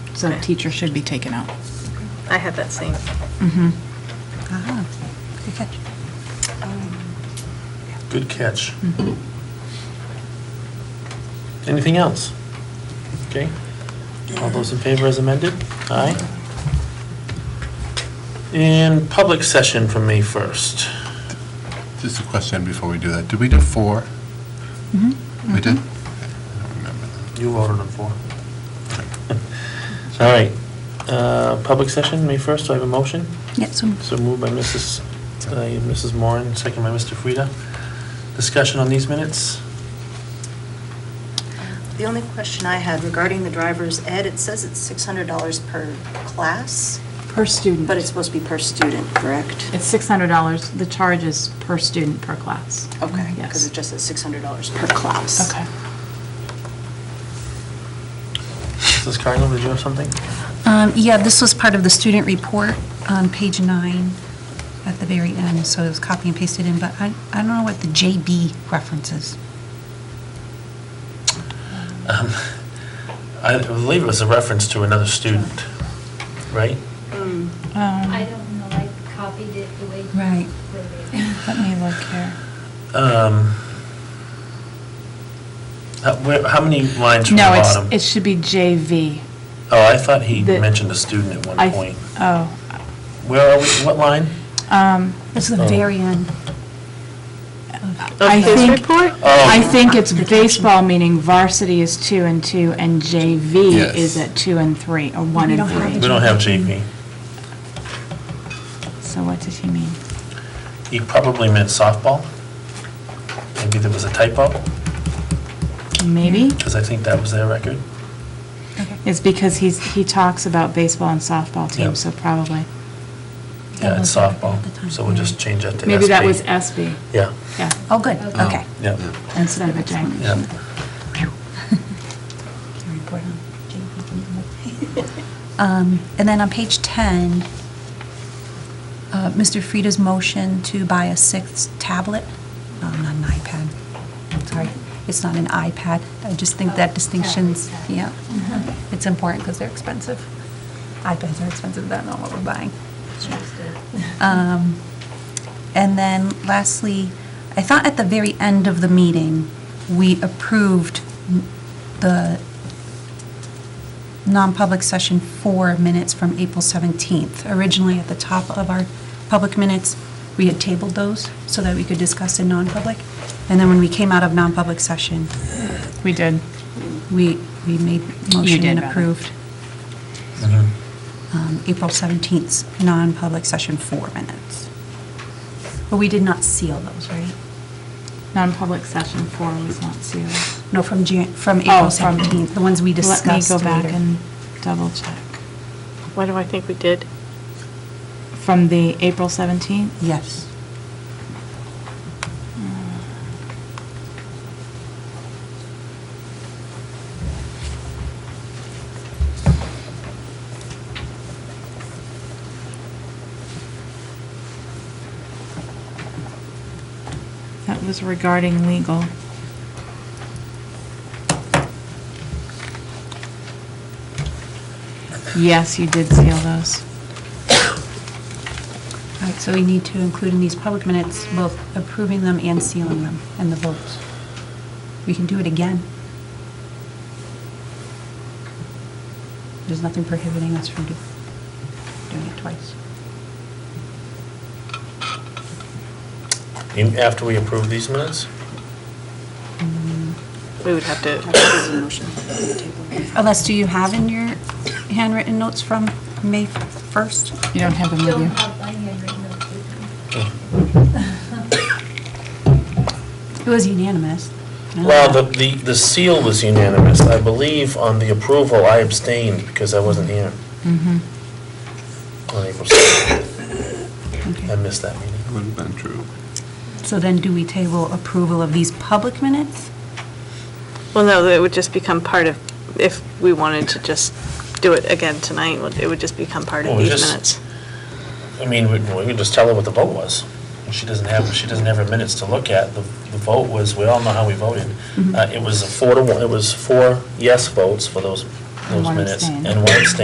So teacher should be taken out. I had that same. Ah, good catch. Good catch. Anything else? Okay. All those in favor as amended? Aye. In public session from May 1st. Just a question before we do that. Did we do four? We did? I don't remember. You voted on four. All right. Uh, Public session, May 1st, do I have a motion? Yeah, so So moved by Mrs. uh, Mrs. Moran, second by Mr. Frida. Discussion on these minutes? The only question I had regarding the driver's ed, it says it's $600 per class, Per student. but it's supposed to be per student, correct? It's $600. The charge is per student per class. Okay, because Yes. it just says $600 per class. Okay. Mrs. Cardinal, did you have something? Um, Yeah, this was part of the student report on page nine at the very end, so it was copy and pasted in, but I, I don't know what the JB reference is. Um, I believe it was a reference to another student, right? I Um, don't know, I copied it the way. you Right. wrote it. Let me look here. Um, How where- how many lines from the No, it's, bottom? it should be JV. Oh, I thought he the- mentioned a student at I- one point. Oh. Where are we, what line? Um, It's the Oh. very end. I his think, report? Oh. I think it's baseball, meaning varsity is two and two, and JV Yes. is at two and three, or one We and don't have We three. it. don't have JV. So what does he mean? He probably meant softball. Maybe there was a typo, Maybe? because I think that was their record. It's because he's, he talks about baseball and softball Yeah. teams, so probably. Yeah, it's That was their softball, record at the time. so we'll just change that to SB. Maybe that was SB, Yeah, yeah, Oh, good, Oh. okay. yeah, instead of a J. yeah. Your report on JV. Um, And then on page 10, uh, Mr. Frida's motion to buy a sixth tablet, um, not an iPad, sorry, it's not an iPad, I just think that distinction's, yeah, it's important because they're expensive. iPads are expensive, that's not what we're buying. Um, And then lastly, I thought at the very end of the meeting, we approved m- the non-public session four minutes from April 17th. Originally, at the top of our public minutes, we had tabled those so that we could discuss in non-public. And then when we came out of non-public session, We did. we, we made motion did, and rather. approved Mhm. um, April 17th's non-public session four minutes. But we did not seal those, right? Non-public session four was not sealed. No, from Jan, from Oh, April from- 17th, the ones we discussed later. Let me go back and double check. What do I think we did? From the April 17th? Yes. That was regarding legal. Yes, you did seal those. All right, so we need to include in these public minutes, both approving them and sealing them, and the votes. We can do it again. There's nothing prohibiting us from do- doing it twice. In- After we approve these minutes? We would have Have to, to raise a motion on the table. Unless, do you have in your handwritten notes from May 1st? You don't have them with Don't you. have my handwritten notes with me. Mm-hmm. It was unanimous. Well, the, the the seal was unanimous. I believe on the approval, I abstained because I wasn't here on April 7th. I Okay. missed that meeting. That would have been true. So then do we table approval of these public minutes? well, no, it would just become part of, if we wanted to just do it again tonight, it would just become part of Well, we these just- minutes. I mean, we, we could just tell her what the vote was. She doesn't have, she doesn't have her minutes to look at. The, the vote was, we all know how we voted. Uh, it was a four to one, it was four yes votes for those, And those one minutes. abstain. And one abstain.